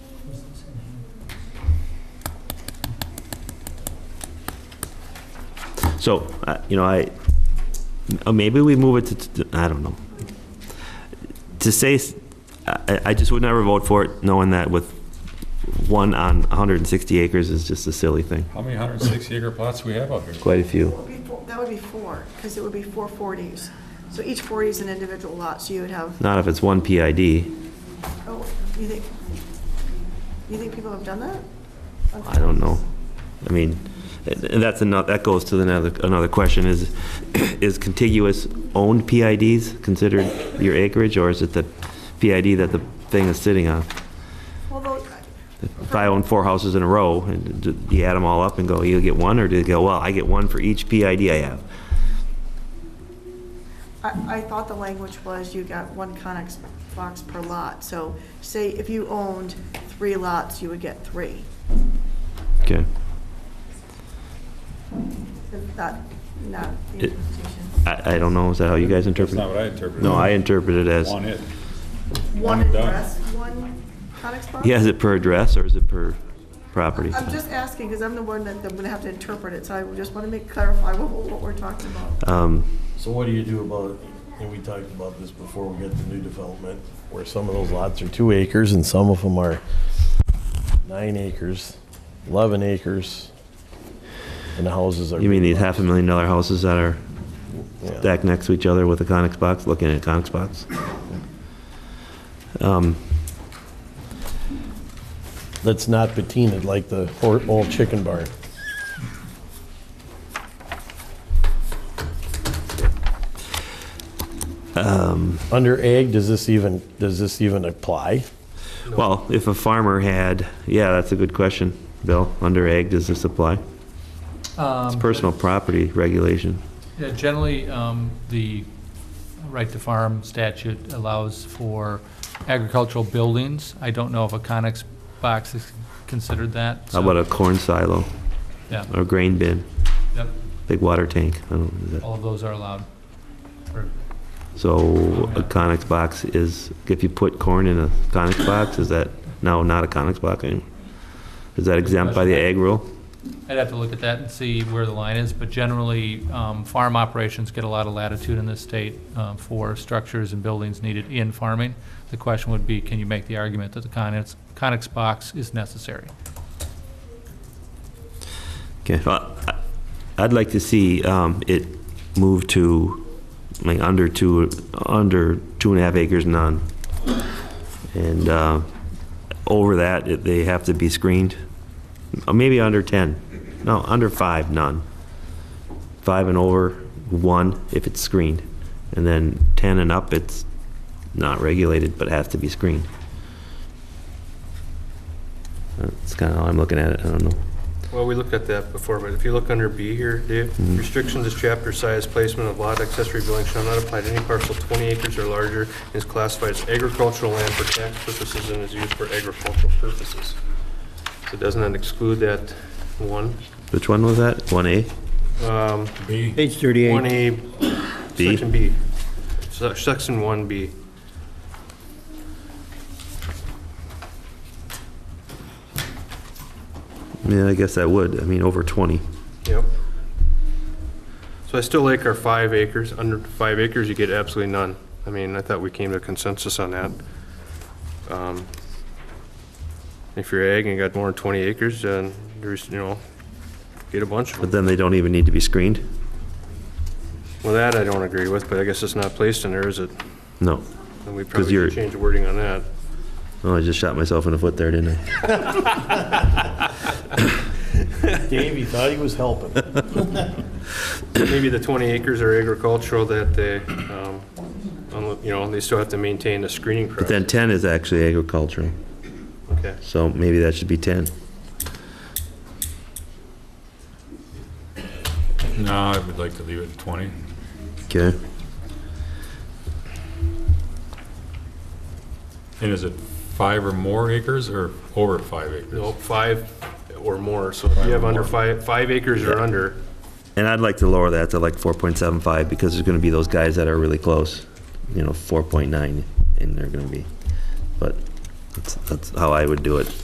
So, uh, you know, I, uh, maybe we move it to- to, I don't know. To say, s- I, I- I just would never vote for it, knowing that with one on 160 acres is just a silly thing. How many 160 acre plots we have out here? Quite a few. Would be four- That would be four, because it would be four 40s. So each 40 is an individual lot, so you would have, Not if it's one PID. oh, you think, you think people have done that? I don't know. I mean, and that's another, that goes to another, another question is, is contiguous owned PIDs considered your acreage or is it the PID that the thing is sitting on? Although, If I own four houses in a row and do you add them all up and go, you get one or do you go, well, I get one for each PID I have? I, I thought the language was you got one Conex box per lot. So say if you owned three lots, you would get three. Okay. Is that not the It- interpretation? I, I don't know. Is that how you guys That's interpret it? not what I interpreted. No, I interpret it as, One it. One I'm done. address, one Conex box? yeah, is it per address or is it per property? I'm just asking, because I'm the one that, I'm gonna have to interpret it, so I just want to make, clarify what, what we're talking about. Um, So what do you do about, and we talked about this before we get to new development, where some of those lots are two acres and some of them are nine acres, 11 acres, and the houses are. You mean these half a million dollar houses that are Yeah. stacked next to each other with a Conex box, looking at a Conex box? Um, That's not patinaed like the hor- old chicken barn. Um. Under ag, does this even, does this even apply? Well, if a farmer had, yeah, that's a good question, Bill. Under ag, does this apply? It's Um, personal property regulation. Um, Yeah, generally, um, the right to farm statute allows for agricultural buildings. I don't know if a Conex box is considered that. How so- about a corn silo Yeah, or grain bin, yep, big water tank? I don't know. is that- all of those are allowed. Or- So a Conex box is, if you put corn in a Conex box, is that, no, not a Conex box anymore? Is that exempt by the ag rule? I'd have to look at that and see where the line is, but generally, um, farm operations get a lot of latitude in this state um, for structures and buildings needed in farming. The question would be, can you make the argument that the Conex, Conex box is necessary? Okay, well, I- I'd like to see um, it move to, like, under two, under two and a half acres none. And uh, over that, it- they have to be screened, Uh, maybe under 10, no, under five, none. Five and over, one, if it's screened. And then 10 and up, it's not regulated, but has to be screened. That's kind of how I'm looking at it, I don't know. Well, we looked at that before, but if you look under B here, Dave, restrictions is chapter size, placement of lot, accessory building shall not apply to any parcel 20 acres or larger, and is classified as agricultural land for tax purposes and is used for agricultural purposes. So doesn't that exclude that one? Which one was that? 1A? Um, Page 38. 1A, B? section B, Se- section 1B. Yeah, I guess that would. I mean, over 20. Yep. So I still like our five acres. Under five acres, you get absolutely none. I mean, I thought we came to consensus on that. Um, If you're ag and you got more than 20 acres, then there's, you know, get a bunch of But then them. they don't even need to be screened? Well, that I don't agree with, but I guess it's not placed in there, is it? No. And we 'Cause probably you're- should change the wording on that. Oh, I just shot myself in the foot there, didn't I? Dave, he thought he was helping. Maybe the 20 acres are agricultural that they, um, unlo- you know, they still have to maintain the screening But process. then 10 is actually agricultural, Okay. so maybe that should be 10. No, I would like to leave it at 20. Okay. And is it five or more acres or over five acres? No, five or more, so if Five you or have under more. five, five acres or under, And I'd like to lower that to like 4.75 because there's going to be those guys that are really close, you know, 4.9, and they're going to be, but that's, that's how I would do it.